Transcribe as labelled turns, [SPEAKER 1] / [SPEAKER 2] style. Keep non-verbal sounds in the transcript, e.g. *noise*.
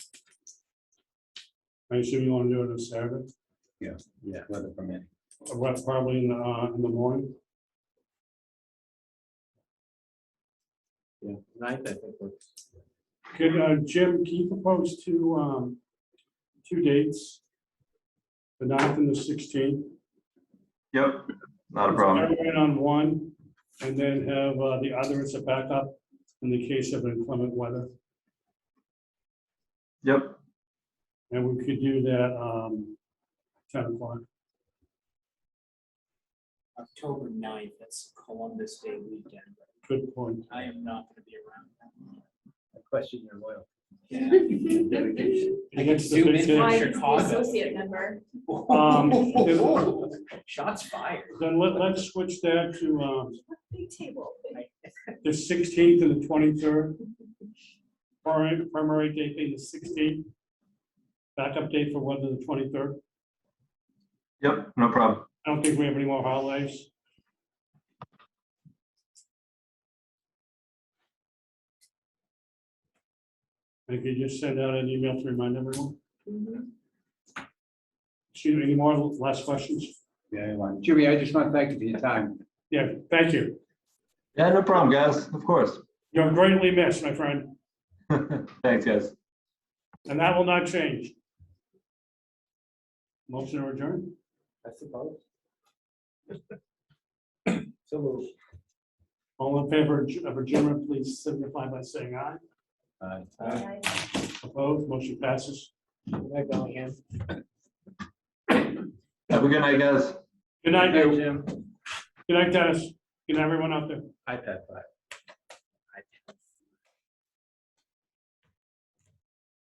[SPEAKER 1] I assume you want to do it on Saturday,
[SPEAKER 2] Yeah, weather permitting.
[SPEAKER 1] Uh, what, probably in the, uh, in the morning,
[SPEAKER 2] Yeah. Ninth, I think. works.
[SPEAKER 1] could, uh, Jim, can you propose two, um, two dates? The ninth and the sixteenth?
[SPEAKER 3] Yep, not a problem.
[SPEAKER 1] Everyone on one, and then have uh, the other as a backup in the case of inclement weather.
[SPEAKER 3] Yep,
[SPEAKER 1] And we could do that um, 10 o'clock.
[SPEAKER 4] October 9th, that's Columbus Day weekend.
[SPEAKER 1] Good point.
[SPEAKER 4] I am not gonna be around.
[SPEAKER 2] I question your loyalty.
[SPEAKER 4] Dedication. I can
[SPEAKER 1] Against the
[SPEAKER 4] zoom
[SPEAKER 1] big
[SPEAKER 4] in
[SPEAKER 1] day.
[SPEAKER 4] from
[SPEAKER 5] My
[SPEAKER 4] Chicago.
[SPEAKER 5] associate member.
[SPEAKER 1] Um,
[SPEAKER 4] Shots fired.
[SPEAKER 1] Then let, let's switch that to um,
[SPEAKER 5] Big table.
[SPEAKER 1] the 16th and the 23rd. Primary, primary date being the 16th. Backup date for weather, the 23rd.
[SPEAKER 3] yep, no problem.
[SPEAKER 1] I don't think we have any more holidays. I could just send out an email to remind everyone. Excuse me, any more last questions?
[SPEAKER 2] Yeah, anyone. Jimmy, I just want to thank you for your time.
[SPEAKER 1] Yeah, thank you.
[SPEAKER 3] Yeah, no problem, guys, of course. *laughs*
[SPEAKER 1] You're greatly missed, my friend,
[SPEAKER 3] Thanks, guys.
[SPEAKER 1] and that will not change. Motion to adjourn.
[SPEAKER 2] I suppose. So moved.
[SPEAKER 1] All in favor of adjournment, please signify by saying aye.
[SPEAKER 2] Aye.
[SPEAKER 4] Uh,
[SPEAKER 1] Opposed, motion passes.
[SPEAKER 2] Good night, Bellingham.
[SPEAKER 3] Have a good night, guys.
[SPEAKER 1] Good night, Dave.
[SPEAKER 2] Jim.
[SPEAKER 1] good night, Dennis, good night, everyone out there.
[SPEAKER 2] iPad five.